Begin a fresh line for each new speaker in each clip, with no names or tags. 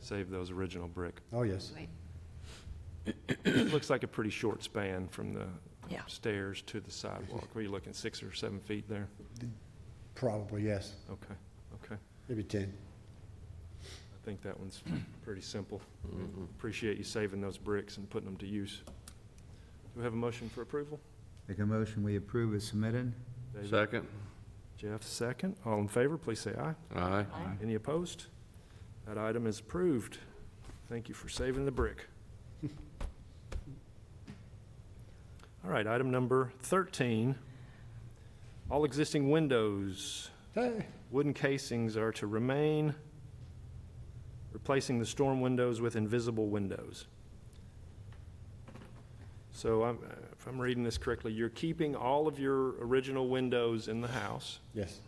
save those original brick.
Oh, yes.
It looks like a pretty short span from the
Yeah.
stairs to the sidewalk. Were you looking six or seven feet there?
Probably, yes.
Okay, okay.
Maybe 10.
I think that one's pretty simple. Appreciate you saving those bricks and putting them to use. Do we have a motion for approval?
Make a motion, we approve as submitted?
David,
Second?
Jeff, second. All in favor, please say aye.
Aye.
Any opposed? That item is approved. Thank you for saving the brick. All right, item number 13. All existing windows,
Hey,
wooden casings are to remain, replacing the storm windows with invisible windows. So I'm- if I'm reading this correctly, you're keeping all of your original windows in the house.
Yes.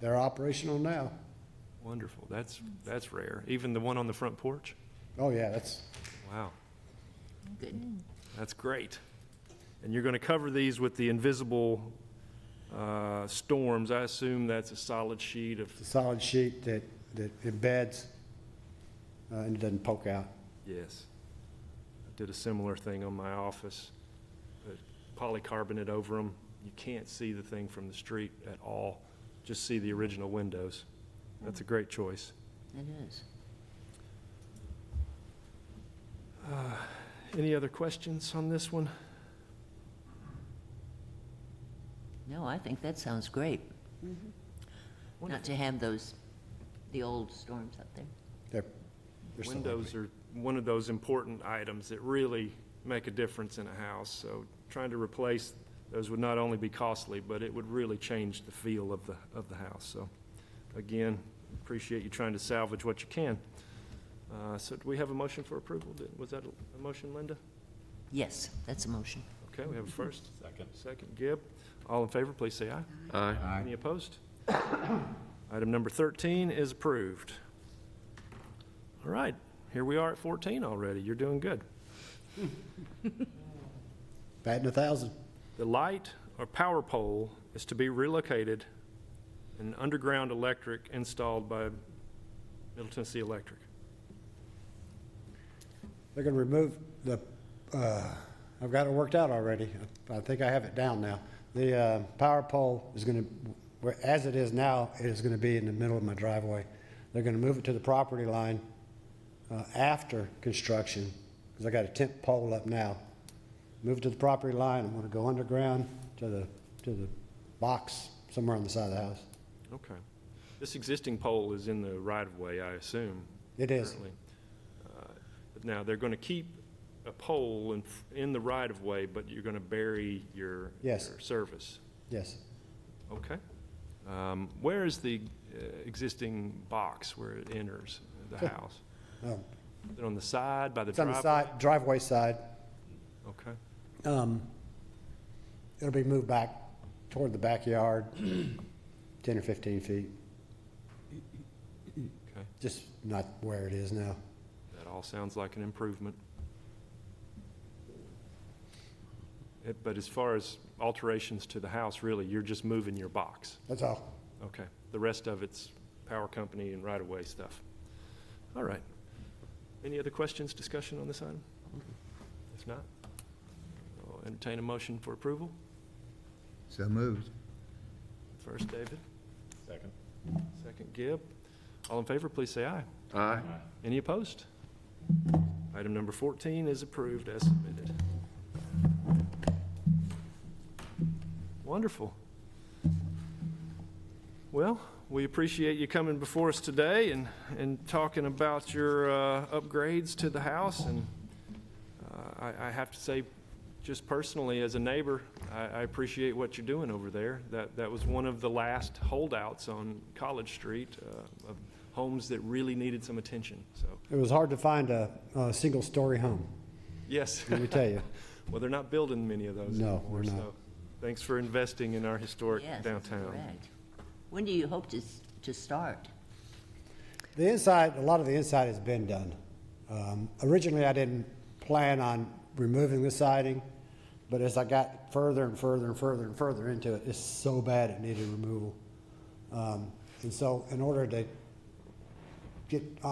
They're operational now.
Wonderful. That's, that's rare. Even the one on the front porch?
Oh, yeah, that's,
Wow,
Good.
that's great. And you're going to cover these with the invisible uh, storms. I assume that's a solid sheet of,
it's a solid sheet that, that embeds uh, and it doesn't poke out.
yes. I did a similar thing on my office. Put Polycarbonate over them. You can't see the thing from the street at all. Just see the original windows. That's a great choice.
It is.
Any other questions on this one?
No, I think that sounds great. Not to have those, the old storms up there.
They're, they're so
Windows are one of those important items that really make a difference in a house, so trying to replace those would not only be costly, but it would really change the feel of the, of the house, so. Again, appreciate you trying to salvage what you can. Uh, so do we have a motion for approval? Did- Was that a- a motion, Linda?
Yes, that's a motion.
Okay, we have a first. Second. Second, Gibb. All in favor, please say aye.
Aye.
Any opposed? Item number 13 is approved. All right, here we are at 14 already. You're doing good.
Batting a thousand.
The light or power pole is to be relocated and underground electric installed by Middle Tennessee Electric.
They're going to remove the, uh, I've got it worked out already. I think I have it down now. The uh, power pole is going to, as it is now, it is going to be in the middle of my driveway. They're going to move it to the property line uh, after construction, because I got a tent pole up now. Move it to the property line, I'm going to go underground to the, to the box somewhere on the side of the house.
Okay. This existing pole is in the right-of-way, I assume.
It is.
currently. Uh, But now, they're going to keep a pole in, in the right-of-way, but you're going to bury your.
Yes.
your Service.
Yes.
Okay. Um, Where is the uh, existing box where it enters the house?
Um,
Is it on the side, by the
It's on
driveway?
the side, driveway side.
Okay,
Um, It'll be moved back toward the backyard, 10 or 15 feet,
okay.
just not where it is now.
That all sounds like an improvement. It- But as far as alterations to the house, really, you're just moving your box?
That's all.
Okay, the rest of it's power company and right-of-way stuff. All right. Any other questions, discussion on this item? If not, I'll entertain a motion for approval.
So moved.
First, David. Second. Second, Gibb. All in favor, please say aye.
Aye.
Any opposed? Item number 14 is approved as submitted. Wonderful. Well, we appreciate you coming before us today and, and talking about your uh, upgrades to the house. And uh, I, I have to say, just personally, as a neighbor, I, I appreciate what you're doing over there. That, that was one of the last holdouts on College Street uh, of homes that really needed some attention, so,
It was hard to find a, a single-story home,
yes.
let me tell you.
Well, they're not building many of those
No,
anymore,
they're not.
so thanks for investing in our historic
Yes,
downtown.
correct. When do you hope to, s- to start?
The inside, a lot of the inside has been done. Um, Originally, I didn't plan on removing the siding, but as I got further and further and further and further into it, it's so bad it needed removal. Um, And so in order to get